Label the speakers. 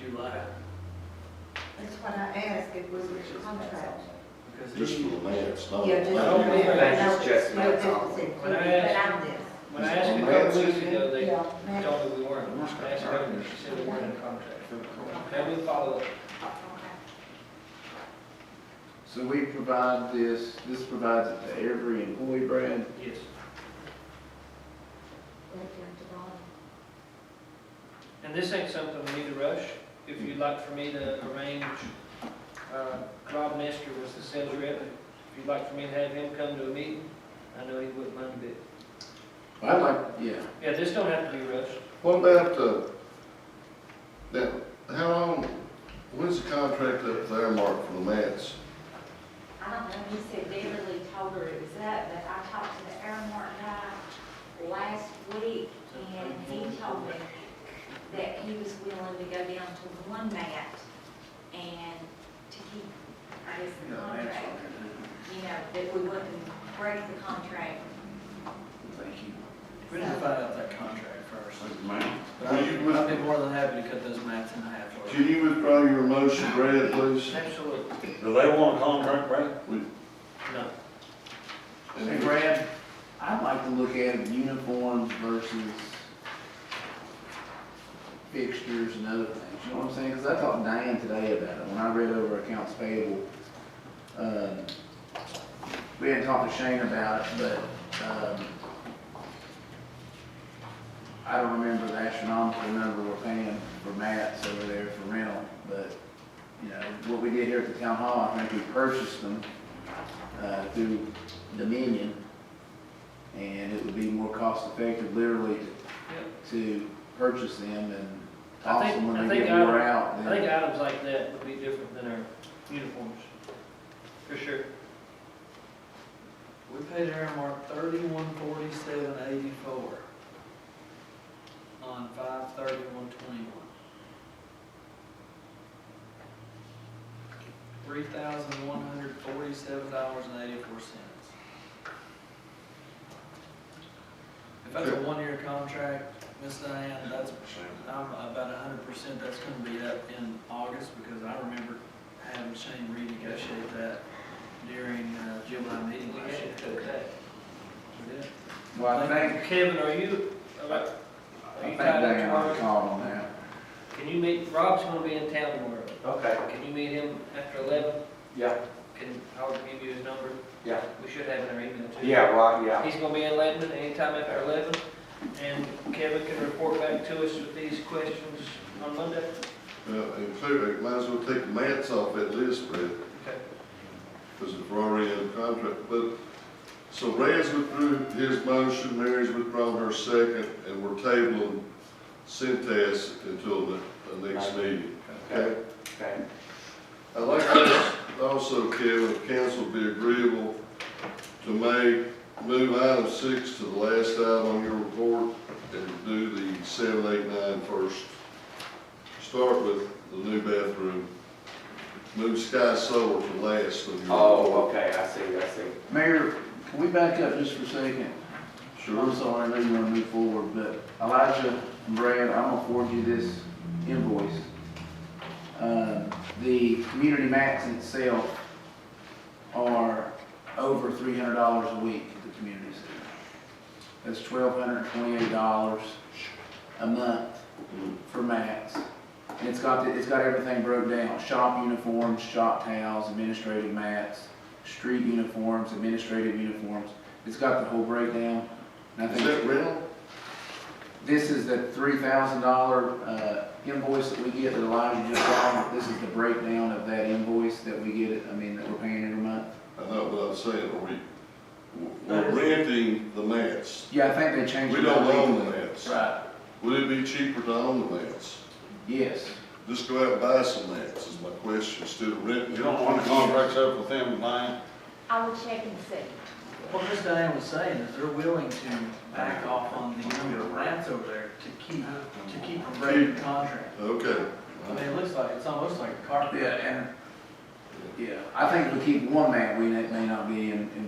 Speaker 1: you like?
Speaker 2: That's what I asked, it was a contract.
Speaker 1: Because
Speaker 3: Just for
Speaker 1: he-
Speaker 3: the lands, not.
Speaker 2: Yeah, just.
Speaker 1: don't think
Speaker 4: that's just
Speaker 2: No,
Speaker 4: my
Speaker 2: this
Speaker 4: problem.
Speaker 2: was included,
Speaker 4: When I
Speaker 2: but
Speaker 4: asked
Speaker 2: I'm this.
Speaker 4: When I asked a couple weeks ago, they
Speaker 2: Yeah, Max,
Speaker 4: told me we weren't. I asked her, and she said we weren't in contract. Now we follow,
Speaker 2: okay.
Speaker 5: So we provide this, this provides it to every employee, Brad?
Speaker 4: yes.
Speaker 2: Right down to bottom.
Speaker 4: And this ain't something we need to rush. If you'd like for me to arrange, uh, Rob Nestor was the sales rep. If you'd like for me to have him come to a meeting, I know he wouldn't mind a bit.
Speaker 5: I like, yeah.
Speaker 4: Yeah, this don't have to be rushed.
Speaker 3: What about the, that, how long, when's the contract up there, Mark, for the mats?
Speaker 6: I don't know, he said Beverly told her it was up, but I talked to the Airmark guy last week, and he told me that he was willing to go down to one mat and to keep, I guess, the
Speaker 1: No, that's
Speaker 6: contract,
Speaker 1: fine.
Speaker 6: you know, that we wouldn't break the contract.
Speaker 1: Thank you. We need to find out that contract first.
Speaker 3: ma'am.
Speaker 1: But I'd I'd be more than happy to cut those mats in half. or-
Speaker 3: Can you withdraw your motion, Brad, please?
Speaker 1: Absolutely.
Speaker 7: Do they want a contract, Brad?
Speaker 4: No.
Speaker 5: Hey, Brad, I'd like to look at uniforms versus fixtures and other things, you know what I'm saying? Because I talked to Diane today about it, when I read over accounts payable. um, We hadn't talked to Shane about it, but, um, I don't remember the astronomical number we're paying for mats over there for rental, but, you know, what we did here at the town hall, I think we purchased them, uh, through Dominion, and it would be more cost effective literally to purchase them and
Speaker 4: I
Speaker 5: toss
Speaker 4: think-
Speaker 5: them
Speaker 4: I
Speaker 5: when they
Speaker 4: think
Speaker 5: get
Speaker 4: I-
Speaker 5: wore out.
Speaker 4: I
Speaker 5: then-
Speaker 4: think items like that would be different than our uniforms, for sure.
Speaker 1: We paid Airmark thirty-one forty-seven eighty-four on five thirty-one twenty-one. Three thousand one hundred forty-seven dollars and eighty-four cents. If that's a one-year contract, Miss Diane, that's, I'm about hundred percent, that's gonna be up in August, because I remember having Shane renegotiate that during uh, July meeting
Speaker 4: We
Speaker 1: last year.
Speaker 4: had to cut that.
Speaker 1: We did.
Speaker 5: Well, I think,
Speaker 4: Kevin, are you, are
Speaker 5: I
Speaker 4: you
Speaker 5: think
Speaker 4: tied up
Speaker 5: they are
Speaker 4: tomorrow?
Speaker 5: called on that.
Speaker 4: Can you meet, Rob's gonna be in town tomorrow.
Speaker 7: Okay,
Speaker 4: Can you meet him after eleven?
Speaker 7: yeah,
Speaker 4: Can Howard give you his number?
Speaker 7: yeah,
Speaker 4: We should have it in our email too.
Speaker 7: yeah, well, yeah.
Speaker 4: He's gonna be in Lebanon anytime after eleven, and Kevin can report back to us with these questions on Monday.
Speaker 3: Uh, include, might as well take the mats off that list, Brad,
Speaker 4: Okay.
Speaker 3: because if we're already in contract, but, so Brad's withdrew his motion, Mary's withdrawn her second, and we're tabling Centas until the, the next meeting, okay?
Speaker 7: Okay.
Speaker 3: I'd like to also, Kevin, if council would be agreeable to make, move item six to the last item on your report and do the seven, eight, nine first. Start with the new bathroom. Move sky solar to last on your report.
Speaker 7: Oh, okay, I see, I see.
Speaker 5: Mayor, can we back up just for a second? I'm
Speaker 3: Sure.
Speaker 5: sorry, I know you want to move forward, but Elijah and Brad, I'm gonna forward you this invoice. Um, The community mats itself are over three hundred dollars a week at the community center. That's twelve hundred twenty-eight dollars a month for mats. And it's got, the- it's got everything broke down, shop uniforms, shop towels, administrative mats, street uniforms, administrative uniforms. It's got the whole breakdown. And I
Speaker 3: Is
Speaker 5: think-
Speaker 3: that rental?
Speaker 5: this is the three thousand dollar uh, invoice that we get that Elijah just brought. This is the breakdown of that invoice that we get, I mean, that we're paying every month.
Speaker 3: I know, but I'm saying, are we, we're renting the mats.
Speaker 5: Yeah, I think they changed.
Speaker 3: We
Speaker 5: it
Speaker 3: don't
Speaker 5: up
Speaker 3: own the
Speaker 5: lately.
Speaker 3: mats.
Speaker 5: Right,
Speaker 3: Would it be cheaper to own the mats?
Speaker 5: yes.
Speaker 3: Just go out and buy some mats is my question, instead of renting.
Speaker 7: You don't want the contracts up with them, man?
Speaker 6: I will check and see.
Speaker 1: What Ms. Diane was saying is they're willing to back off on the number of rats over there to keep, to keep from breaking the contract.
Speaker 3: Okay.
Speaker 1: I mean, it looks like, it's almost like a carpet.
Speaker 5: Yeah, and, yeah, I think if we keep one mat, we may not be in, in